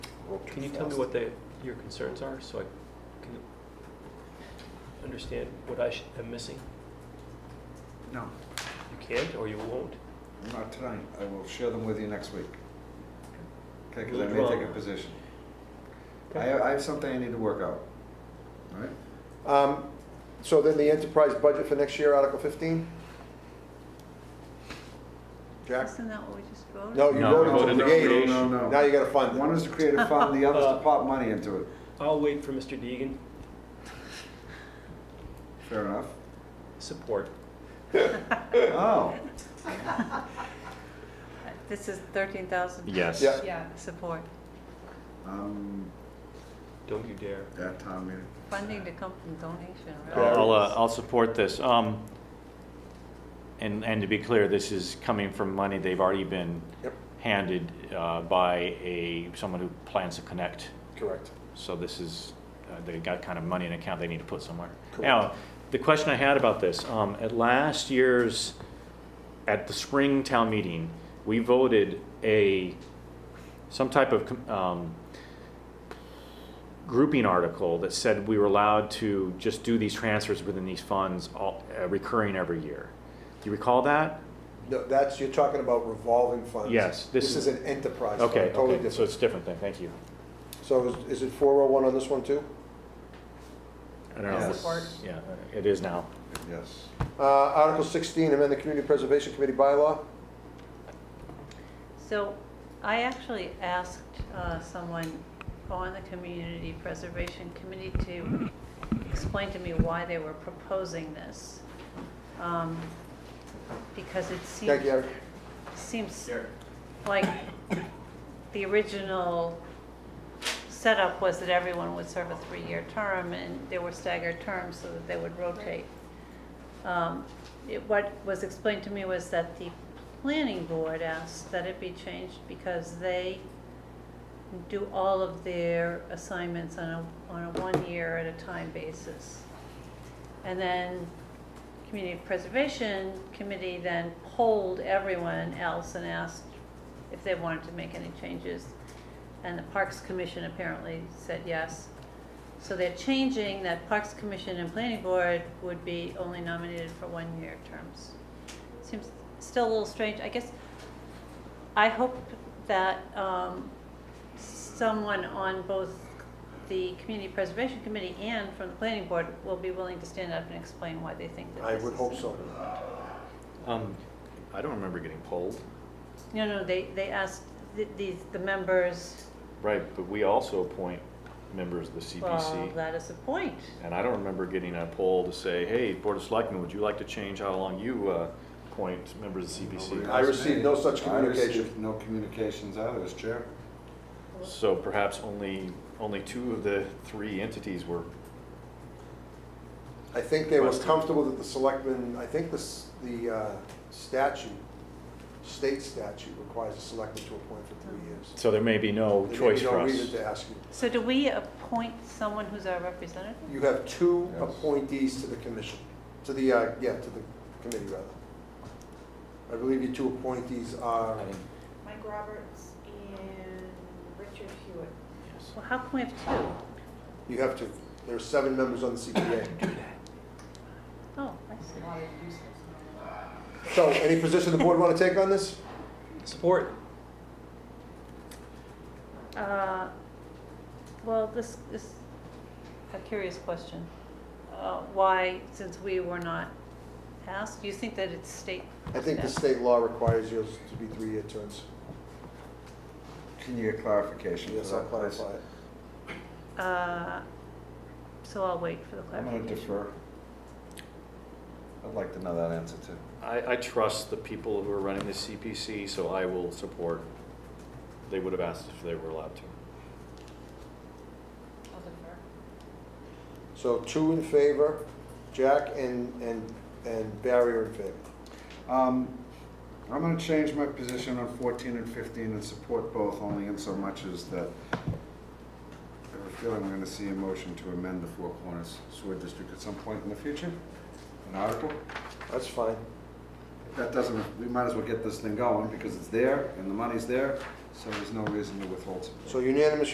broke too Can you tell me fast. what the, your concerns are, so I can understand what I should, am missing? No, You can't, or you won't? I'm not tonight. I will share them with you next week. Okay, because I Lead may take a role. position. I have, I have something I need to work out. All right? Um, So then the enterprise budget for next year, Article 15? Jack? Isn't that what we just voted? No, you No, No, voted voted to no, create it. No, no, Now no. you gotta fund One it. is to create a fund, the other is to pop money into it. I'll wait for Mr. Deegan. Fair enough. Support. Oh, This is thirteen thousand. Yes. Yeah. Yeah. Support, um, Don't you dare. that town meeting. funding to come from donation, I'll, right? I'll, uh, I'll support this. Um, and, and to be clear, this is coming from money they've already been Yep. handed, uh, by a, someone who plans to connect. Correct. So this is, uh, they got kind of money in account they need to put somewhere. Correct. Now, the question I had about this, um, at last year's, at the spring town meeting, we voted a, some type of, com- um, grouping article that said we were allowed to just do these transfers within these funds all, uh, recurring every year. Do you recall that? No, that's, you're talking about revolving funds. Yes, this This is is- an enterprise fund, Okay, totally okay, so different. it's a different thing, thank you. So is- is it 401 on this one too? I don't know. Yes. Support. Yeah, it is now. Yes. Uh, Article 16, amend the Community Preservation Committee bylaw? So I actually asked uh, someone on the Community Preservation Committee to explain to me why they were proposing this. Um, Because it seems. Thank you, Eric. seems like the original setup was that everyone would serve a three-year term, and there were staggered terms so that they would rotate. Um, it- What was explained to me was that the planning board asked that it be changed because they do all of their assignments on a, on a one-year at a time basis. And then Community Preservation Committee then polled everyone else and asked if they wanted to make any changes. And the Parks Commission apparently said yes. So they're changing that Parks Commission and Planning Board would be only nominated for one-year terms. Seems still a little strange. I guess, I hope that um, someone on both the Community Preservation Committee and from the Planning Board will be willing to stand up and explain why they think that I this would is- hope so. Um, I don't remember getting polled. No, no, they, they asked the, the, the members, Right, but we also appoint members of the well, CPC. that is the point. And I don't remember getting a poll to say, hey, Board of Selectmen, would you like to change how long you uh, appoint members of the I CPC? received no such I received communication. No communications out of this chair. So perhaps only, only two of the three entities were, I think they were comfortable that the selectmen, I think this, the uh, statute, state statute requires the selectmen to appoint for three years. so there may be no There may be choice for No reason us. to ask you. So do we appoint someone who's our representative? You have two Yes. appointees to the commission, to the, uh, yeah, to the committee rather. I believe your two appointees are, I think- Mike Roberts and Richard Hewitt. yes. Well, how can we have two? you have to, there are seven members on the CPA. Oh, I see. So any position the board want to take on this? Support. Uh, Well, this is a curious question. Uh, Why, since we were not asked, you think that it's state? I think the Yeah. state law requires yours to be three-year terms. Can you get clarification? Yes, for I'll that, please? clarify it. Uh, So I'll wait for the I'm clarification. gonna defer. I'd like to know that answer too. I, I trust the people who are running the CPC, so I will support. They would have asked if they were allowed to. So two in favor, Jack and, and, and Barry are in favor. Um, I'm gonna change my position on fourteen and fifteen and support both only in so much as that I have a feeling I'm gonna see a motion to amend the Four Corners Sewer District at some point in the future, an article. That's fine. If That doesn't, we might as well get this thing going because it's there and the money's there, so there's no reason to withhold support. So unanimous